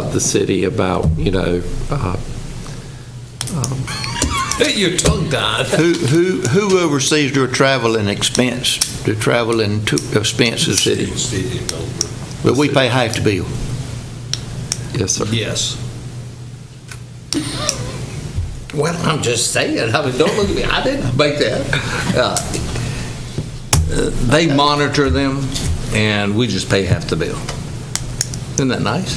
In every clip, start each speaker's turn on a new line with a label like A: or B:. A: the city about, you know, uh, um, your tongue died.
B: Who, who, who oversees your travel and expense, the travel and to- expenses?
A: City.
B: But we pay half the bill.
A: Yes, sir.
C: Yes.
A: Well, I'm just saying, I mean, don't look at me, I didn't make that. Uh, They monitor them, and we just pay half the bill. Isn't that nice?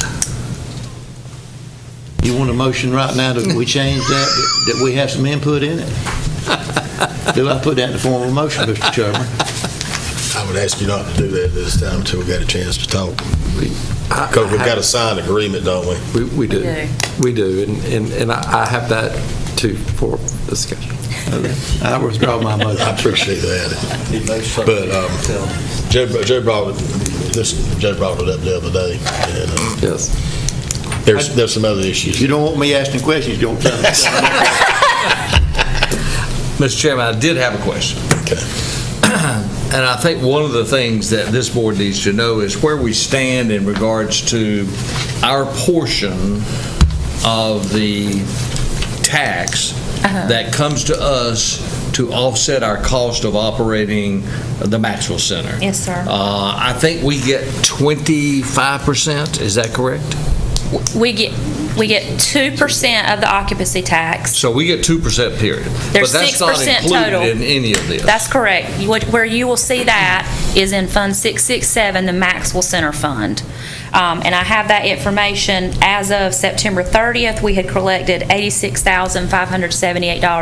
B: You want a motion right now that we change that, that we have some input in it? Do I put that in the form of a motion, Mr. Chairman?
D: I would ask you not to do that this time until we got a chance to talk. Because we've got a signed agreement, don't we?
A: We, we do.
E: do.
A: We do, and, and and I I have that too for discussion.
B: I withdraw my motion.
D: I appreciate that. But um, Joe Joe brought, it- this, Joe brought it up the other day, and uh,
A: Yes.
D: there's, there's some other issues.
B: You don't want me asking questions, you don't tell me.
C: Mr. Chairman, I did have a question.
D: Okay.
C: And I think one of the things that this board needs to know is where we stand in regards to our portion of the tax
E: Uh-huh.
C: that comes to us to offset our cost of operating the Maxwell Center.
E: Yes, sir.
C: Uh, I think we get 25%, is that correct?
E: We get, we get 2% of the occupancy tax.
C: So we get 2% period.
E: There's
C: But that's
E: 6%
C: not included
E: total.
C: in any of this.
E: That's correct. You- what- Where you will see that is in Fund 667, the Maxwell Center Fund. Um, And I have that information. As of September 30th, we had collected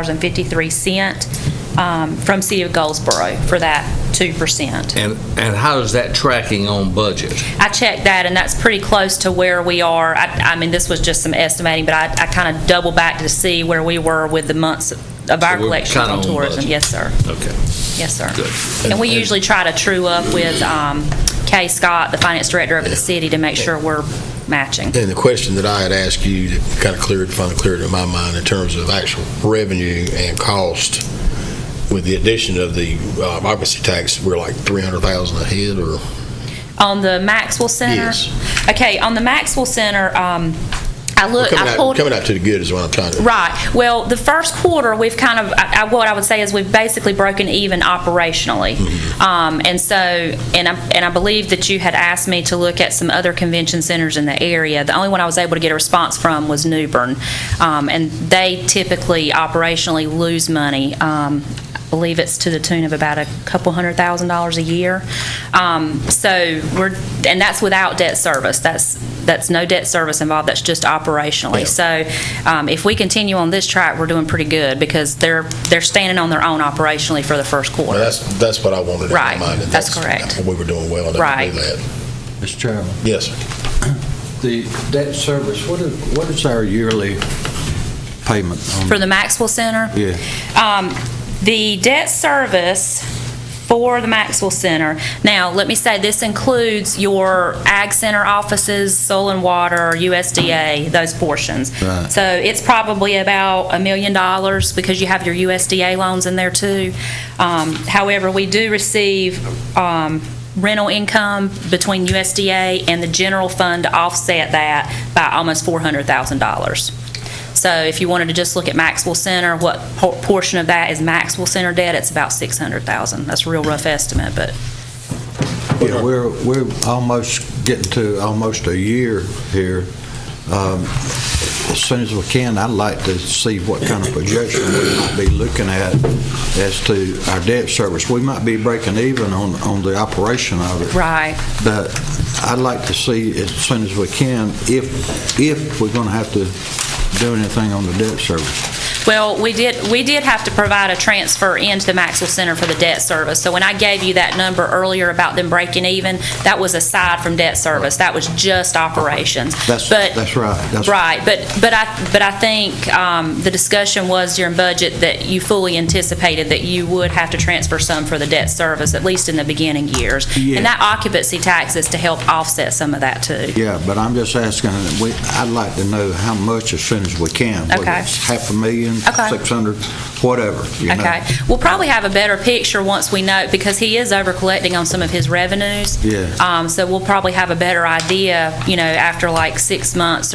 E: $86,578.53 um, from City of Goldsboro for that 2%.
C: And, and how is that tracking on budget?
E: I checked that, and that's pretty close to where we are. I, I mean, this was just some estimating, but I, I kind of double back to see where we were with the months of our
C: So we're
E: collections
C: kinda
E: on
C: on
E: tourism.
C: budget.
E: Yes, sir.
C: Okay.
E: Yes, sir.
C: Good.
E: And we usually try to true up with um, Kay Scott, the finance director of the city, to make sure we're matching.
D: And the question that I had asked you that kind of cleared, finally cleared in my mind in terms of actual revenue and cost, with the addition of the uh, occupancy tax, we're like 300,000 ahead or?
E: On the Maxwell Center?
D: Yes.
E: Okay, on the Maxwell Center, um, I
D: We're
E: looked,
D: coming
E: I
D: out-
E: pulled.
D: Coming out to the good is what I'm trying to.
E: Right. Well, the first quarter, we've kind of, I, I- what I would say is we've basically broken even operationally. Um, and so, and I, and I believe that you had asked me to look at some other convention centers in the area. The only one I was able to get a response from was Newbern. Um, and they typically operationally lose money. Um, I believe it's to the tune of about a couple hundred thousand dollars a year. Um, so we're, and that's without debt service. That's, that's no debt service involved. That's just operationally. So so um, if we continue on this track, we're doing pretty good because they're, they're standing on their own operationally for the first
D: Well,
E: quarter.
D: that's, that's what I wanted in my
E: Right,
D: mind. and
E: that's correct.
D: We were doing well enough to
E: Right.
D: do that.
F: Mr. Chairman,
D: Yes, sir.
F: the debt service, what is, what is our yearly payment on?
E: For the Maxwell Center?
F: Yeah.
E: Um, The debt service for the Maxwell Center, now, let me say, this includes your Ag Center offices, Soil and Water, USDA, those portions.
F: Right.
E: So it's probably about a million dollars because you have your USDA loans in there too. Um, However, we do receive um, rental income between USDA and the general fund to offset that by almost $400,000. So if you wanted to just look at Maxwell Center, what por- portion of that is Maxwell Center debt? It's about 600,000. That's a real rough estimate, but
F: Yeah, We're, we're almost getting to almost a year here. Um, As soon as we can, I'd like to see what kind of projection we might be looking at as to our debt service. We might be breaking even on, on the operation of it.
E: Right.
F: But I'd like to see as soon as we can if, if we're going to have to do anything on the debt service.
E: Well, we did, we did have to provide a transfer into the Maxwell Center for the debt service. So when I gave you that number earlier about them breaking even, that was aside from debt service. That was just operations.
F: That's-
E: But-
F: that's right. That's-
E: Right, but, but I, but I think um, the discussion was during budget that you fully anticipated that you would have to transfer some for the debt service, at least in the beginning years.
F: Yeah.
E: And that occupancy tax is to help offset some of that too.
F: Yeah, but I'm just asking, we, I'd like to know how much as soon as we can. whether
E: Okay.
F: it's Half a million,
E: Okay.
F: 600, whatever, you know.
E: Okay, we'll probably have a better picture once we know, because he is over collecting on some of his revenues.
F: Yeah.
E: Um, so we'll probably have a better idea, you know, after like six months